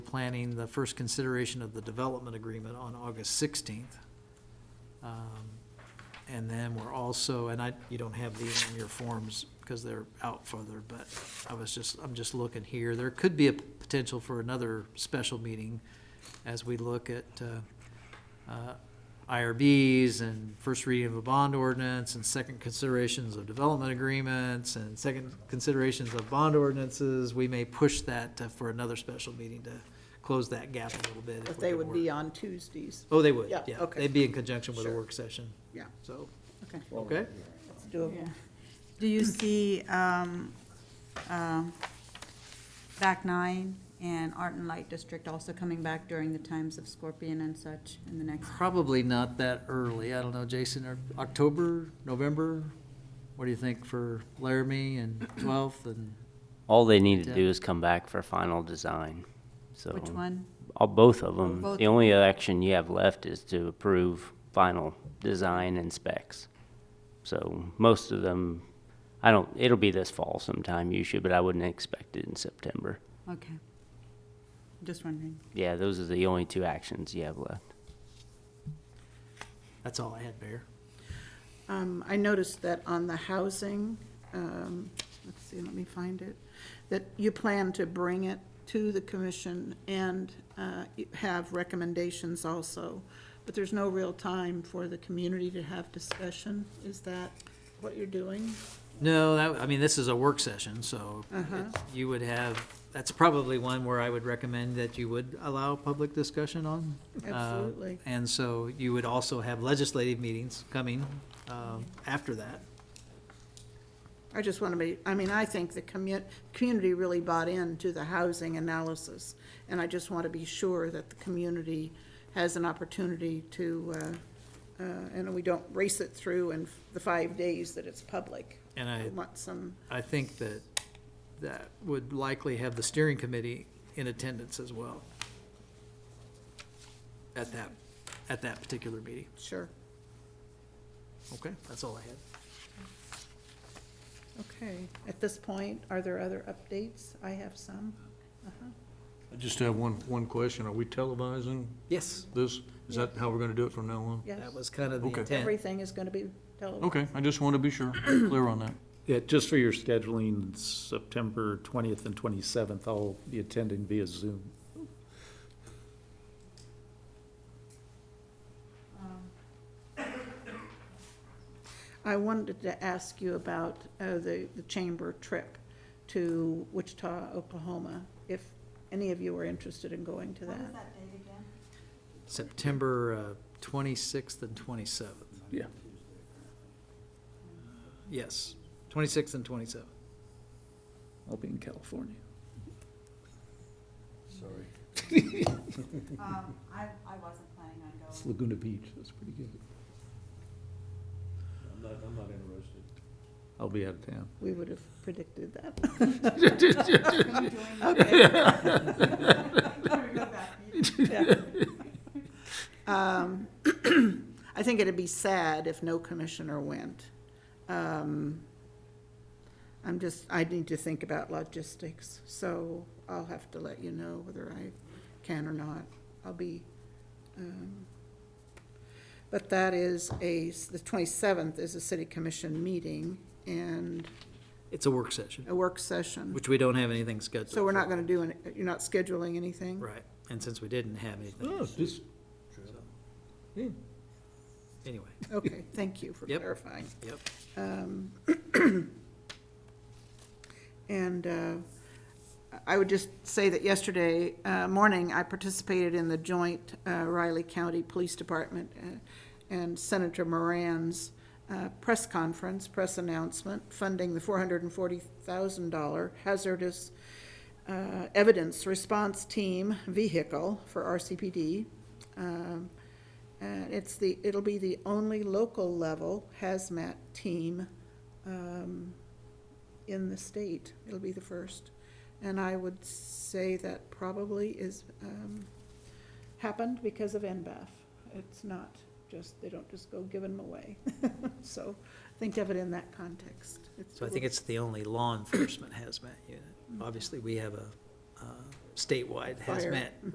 planning the first consideration of the development agreement on August sixteenth. Um, And then we're also, and I, you don't have these in your forms because they're out further, but I was just, I'm just looking here. There could be a potential for another special meeting as we look at, uh, uh, IRBs and first reading of a bond ordinance and second considerations of development agreements and second considerations of bond ordinances, we may push that uh, for another special meeting to close that gap a little bit. if But we they can would work. be on Tuesdays. Oh, they would, Yeah, yeah. okay. They'd be in conjunction with a Sure. work session, Yeah, so, okay, okay? it's doable. Do you see um, um, Back Nine and Art and Light District also coming back during the times of Scorpion and such in the next? Probably not that early. I don't know, Jason, or October, November? What do you think for Laramie and 12th and, All they need to Yeah. do is come back for final design, so. Which one? All, both of them. Both. The only action you have left is to approve final design and specs. So most of them, I don't, it'll be this fall sometime usually, but I wouldn't expect it in September. Okay. Just wondering. Yeah, those are the only two actions you have left. that's all I had, Mayor. Um, I noticed that on the housing, um, let's see, let me find it, that you plan to bring it to the commission and uh, you have recommendations also, but there's no real time for the community to have discussion. Is that what you're doing? No, that, I mean, this is a work session, so Uh-huh. it- you would have, that's probably one where I would recommend that you would allow public discussion on. Uh, Absolutely. And so you would also have legislative meetings coming um, after that. I just want to be, I mean, I think the commu, community really bought into the housing analysis, and I just want to be sure that the community has an opportunity to, uh, uh, and we don't race it through in the five days that it's public. And I- want some, I think that that would likely have the steering committee in attendance as well at that, at that particular meeting. sure, Okay, that's all I had. okay. At this point, are there other updates? I have some. Uh-huh. I just have one, one question. Are we televising Yes, this? Is that how we're gonna do it from now on? Yes, that was kind of the Okay. intent. everything is going to be televised. Okay, I just want to be sure, clear on that. Yeah, just for your scheduling, September 20th and 27th, I'll be attending via Zoom. I wanted to ask you about uh, the, the chamber trip to Wichita, Oklahoma, if any of you are interested in going to that. date again? September uh, 26th and 27th. Yeah. Yes, 26th and 27th. I'll be in California. I, I wasn't planning on It's Laguna Beach, that's pretty good. I'm not, I'm not interested. I'll be out of town. We would have predicted that. Um, I think it'd be sad if no commissioner went. Um, I'm just, I need to think about logistics, so I'll have to let you know whether I can or not. I'll be, um, but that is a, the 27th is a city commission meeting and It's a work session, a work session. which we don't have anything scheduled. So we're not for. going to do, any- you're not scheduling anything? Right, and since we didn't have anything, Oh, Hmm. just, anyway, Okay, thank you for Yep. clarifying. yep. Um, And uh, I would just say that yesterday uh, morning, I participated in the joint uh, Riley County Police Department uh, and Senator Moran's uh, press conference, press announcement, funding the $440,000 hazardous uh, evidence response team vehicle for RCPD. Um, uh, It's the, it'll be the only local level hazmat team um, in the state. It'll be the first. And I would say that probably is, um, happened because of NBAF. It's not just, they don't just go give them away. So think of it in that context. So I think it's the only law enforcement hazmat unit. Obviously, we have a uh, statewide Fire. hazmat